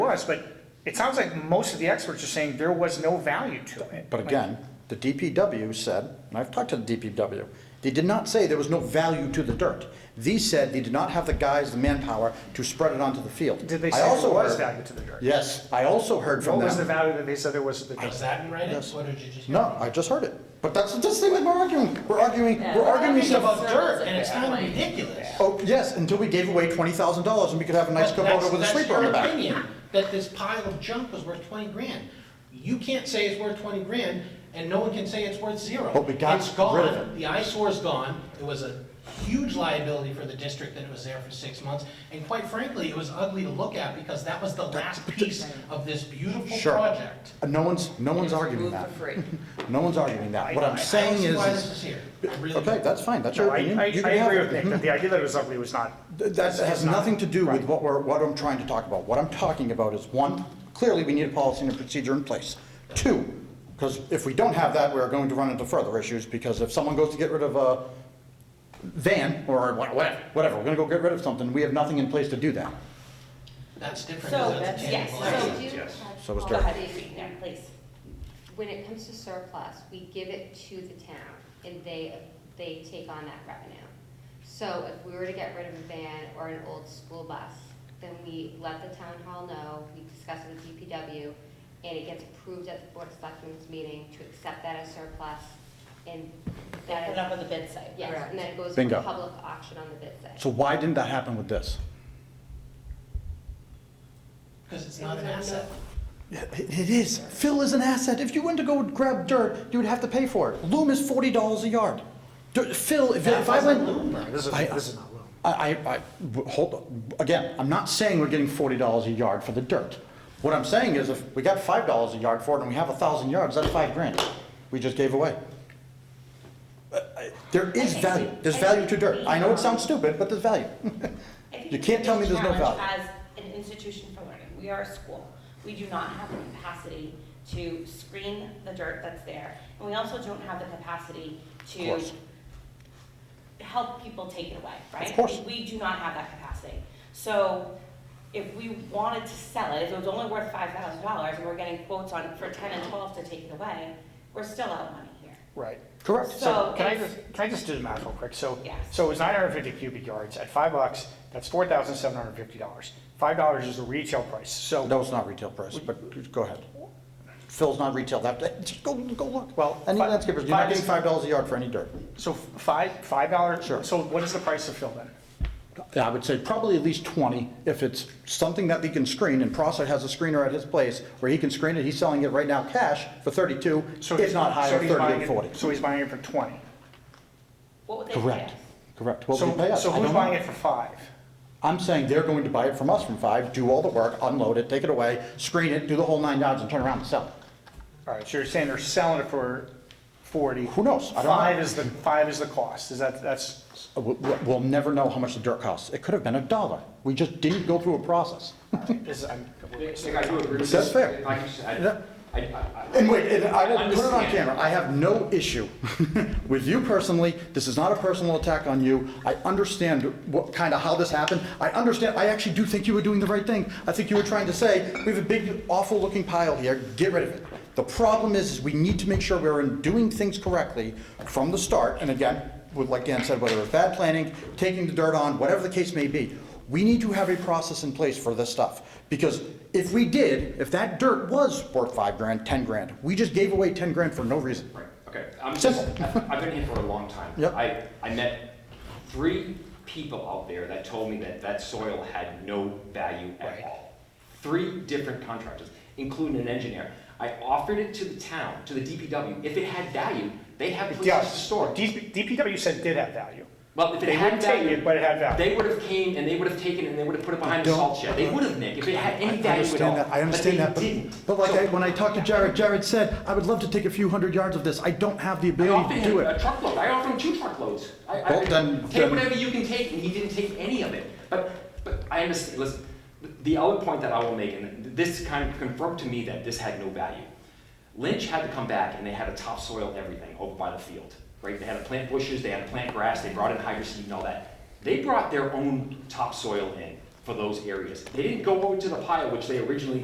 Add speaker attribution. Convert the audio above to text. Speaker 1: was, but it sounds like most of the experts are saying there was no value to it.
Speaker 2: But again, the DPW said, and I've talked to the DPW, they did not say there was no value to the dirt. These said they did not have the guys, the manpower to spread it onto the field.
Speaker 1: Did they
Speaker 2: I
Speaker 1: say there
Speaker 2: also
Speaker 1: was
Speaker 2: heard-
Speaker 1: value to the dirt?
Speaker 2: Yes, I also heard from
Speaker 1: What
Speaker 2: them.
Speaker 1: was the value that they said there was to the dirt?
Speaker 3: Was that in writing?
Speaker 2: Yes.
Speaker 3: What did you just?
Speaker 2: No, I just heard it. But that's, that's the thing that we're arguing. We're arguing, we're arguing
Speaker 3: It's
Speaker 2: stuff.
Speaker 3: about dirt and it's kind of ridiculous.
Speaker 2: Oh, yes, until we gave away twenty thousand dollars and we could have a nice
Speaker 3: But that's-
Speaker 2: Kubota with a sweeper on the
Speaker 3: That's
Speaker 2: back.
Speaker 3: your opinion, that this pile of junk was worth twenty grand. You can't say it's worth twenty grand, and no one can say it's worth zero.
Speaker 2: But we got
Speaker 3: It's
Speaker 2: rid of
Speaker 3: gone,
Speaker 2: it.
Speaker 3: the eyesore's gone, it was a huge liability for the district that it was there for six months. And quite frankly, it was ugly to look at because that was the last piece of this beautiful
Speaker 2: Sure.
Speaker 3: project.
Speaker 2: Uh, No one's, no one's arguing that.
Speaker 4: Move for free.
Speaker 2: No one's arguing that. What
Speaker 1: I- I
Speaker 2: I'm
Speaker 3: I-
Speaker 2: saying
Speaker 3: I don't see
Speaker 2: is,
Speaker 3: why this
Speaker 2: is-
Speaker 3: is here. I really
Speaker 2: okay,
Speaker 3: don't.
Speaker 2: that's fine, that's
Speaker 1: No,
Speaker 2: your
Speaker 1: I,
Speaker 2: opinion.
Speaker 1: I,
Speaker 2: You
Speaker 1: I
Speaker 2: can have
Speaker 1: agree
Speaker 2: it.
Speaker 1: with Nick,
Speaker 2: Mhm.
Speaker 1: that the idea that it was ugly was not,
Speaker 2: Th- That has nothing to do with what we're, what I'm trying to talk about. What I'm talking about is, one, clearly we need a policy and a procedure in place. Two, because if we don't have that, we're going to run into further issues, because if someone goes to get rid of a van, or wha- whatever, whatever, we're gonna go get rid of something, we have nothing in place to do that.
Speaker 3: That's different.
Speaker 5: So,
Speaker 3: because that's a
Speaker 5: yes,
Speaker 3: tangible
Speaker 5: so
Speaker 3: asset.
Speaker 5: do you have
Speaker 2: So it's
Speaker 5: policy in place?
Speaker 6: When it comes to surplus, we give it to the town, and they, they take on that revenue. So if we were to get rid of a van or an old school bus, then we let the town hall know, we discuss it with DPW, and it gets approved at the Board of Selectmen's meeting to accept that as surplus, and
Speaker 5: They
Speaker 6: that
Speaker 5: put it
Speaker 6: is,
Speaker 5: up on the bid site,
Speaker 6: yes,
Speaker 5: correct?
Speaker 6: and then it goes to
Speaker 2: Bingo.
Speaker 6: public auction on the bid site.
Speaker 2: So why didn't that happen with this?
Speaker 3: Because it's not an asset.
Speaker 2: It is. Fill is an asset. If you went to go grab dirt, you would have to pay for it. Loom is forty dollars a yard. Dirt- Fill, if if I
Speaker 3: That
Speaker 2: went.
Speaker 3: wasn't loom, though.
Speaker 1: this is,
Speaker 2: I-
Speaker 1: this is not low.
Speaker 2: I, I, I- w- hold, on. again, I'm not saying we're getting forty dollars a yard for the dirt. What I'm saying is if we got five dollars a yard for it and we have a thousand yards, that's five grand we just gave away. Uh, I- There is
Speaker 5: Okay,
Speaker 2: value,
Speaker 5: so
Speaker 2: there's
Speaker 5: I
Speaker 2: value to
Speaker 5: think
Speaker 2: dirt. I know it sounds stupid, but there's value.
Speaker 5: I think
Speaker 2: You can't tell me there's no
Speaker 5: we challenge
Speaker 2: value.
Speaker 5: As an institution for learning, we are a school. We do not have the capacity to screen the dirt that's there. And we also don't have the capacity
Speaker 2: Of
Speaker 5: to
Speaker 2: course.
Speaker 5: help people take it away, right?
Speaker 2: course.
Speaker 5: We do not have that capacity. So if we wanted to sell it, if it was only worth five thousand dollars and we're getting quotes on for ten and twelve to take it away, we're still out money here.
Speaker 1: Right.
Speaker 2: Correct.
Speaker 1: So
Speaker 5: So
Speaker 1: can I
Speaker 5: it's-
Speaker 1: just, can I just do the math real quick? So,
Speaker 5: Yes.
Speaker 1: so it was nine hundred and fifty cubic yards at five bucks, that's four thousand seven hundred and fifty dollars. Five dollars is the retail price, so,
Speaker 2: No, it's not retail price, but go ahead. Phil's not retail, that, just go, go look.
Speaker 1: Well,
Speaker 2: Any
Speaker 1: fi-
Speaker 2: landscapers, you're not
Speaker 1: five is-
Speaker 2: getting five dollars a yard for any dirt.
Speaker 1: so five, five dollars,
Speaker 2: Sure.
Speaker 1: so what is the price of fill then?
Speaker 2: Yeah, I would say probably at least 20, if it's something that he can screen, and Prosser has a screener at his place where he can screen it, he's selling it right now cash for 32,
Speaker 1: So
Speaker 2: if not higher,
Speaker 1: so he's buying it-
Speaker 2: 38, 40.
Speaker 1: So he's buying it for twenty.
Speaker 5: What would they pay
Speaker 2: Correct,
Speaker 5: us?
Speaker 2: correct. What
Speaker 1: So-
Speaker 2: would he pay us?
Speaker 1: So
Speaker 2: I
Speaker 1: who's
Speaker 2: don't know.
Speaker 1: buying it for five?
Speaker 2: I'm saying they're going to buy it from us from five, do all the work, unload it, take it away, screen it, do the whole nine yards, and turn around and sell it.
Speaker 1: All right, so you're saying they're selling it for forty?
Speaker 2: Who knows? I don't know.
Speaker 1: Five is the, five is the cost, is that, that's,
Speaker 2: We- we- We'll never know how much the dirt costs. It could have been a dollar. We just didn't go through a process.
Speaker 1: is, I'm.
Speaker 7: Nick, Nick, I do agree with
Speaker 2: That's
Speaker 7: this.
Speaker 2: fair.
Speaker 7: If I can just- I-
Speaker 2: Yeah.
Speaker 7: I- I- I-
Speaker 2: And wait, and I will put it on
Speaker 7: Understand.
Speaker 2: camera, I have no issue with you personally, this is not a personal attack on you, I understand what, kind of how this happened, I understand, I actually do think you were doing the right thing, I think you were trying to say, we have a big awful looking pile here, get rid of it. The problem is, is we need to make sure we're in doing things correctly from the start, and again, with, like Dan said, whether it's bad planning, taking the dirt on, whatever the case may be, we need to have a process in place for this stuff. Because if we did, if that dirt was worth five grand, 10 grand, we just gave away 10 grand for no reason.
Speaker 7: Right, okay, I'm just,
Speaker 2: Simple.
Speaker 7: I've I've been here for a long time.
Speaker 2: Yep.
Speaker 7: I, I met three people out there that told me that that soil had no value at all. Three different contractors, including an engineer. I offered it to the town, to the DPW, if it had value, they have places to
Speaker 1: Yes,
Speaker 7: store it.
Speaker 1: DP DPW said it did have value.
Speaker 7: Well, if
Speaker 1: They
Speaker 7: it had
Speaker 1: wouldn't take
Speaker 7: value.
Speaker 1: it, but it had value.
Speaker 7: They would have came and they would have taken it and they would have put it behind a
Speaker 2: don't-
Speaker 7: salt shed. They would have, Nick, if it had any value at all.
Speaker 2: I understand that, I understand that,
Speaker 7: But
Speaker 2: but,
Speaker 7: they didn't.
Speaker 2: but like,
Speaker 7: So-
Speaker 2: I- when I talked to Jared, Jared said, I would love to take a few hundred yards of this, I don't have the
Speaker 7: I
Speaker 2: ability
Speaker 7: offered
Speaker 2: to do
Speaker 7: him a
Speaker 2: it.
Speaker 7: truckload, I offered him two truckloads. I, I,
Speaker 2: Well, then-
Speaker 7: take
Speaker 2: then-
Speaker 7: whatever you can take, and he didn't take any of it. But, but I understand, listen, the other point that I will make, and this kind of confirmed to me that this had no value. Lynch had to come back and they had to topsoil everything over by the field, right? They had to plant bushes, they had to plant grass, they brought in hydroseed and all that. They brought their own topsoil in for those areas. They didn't go over to the pile, which they originally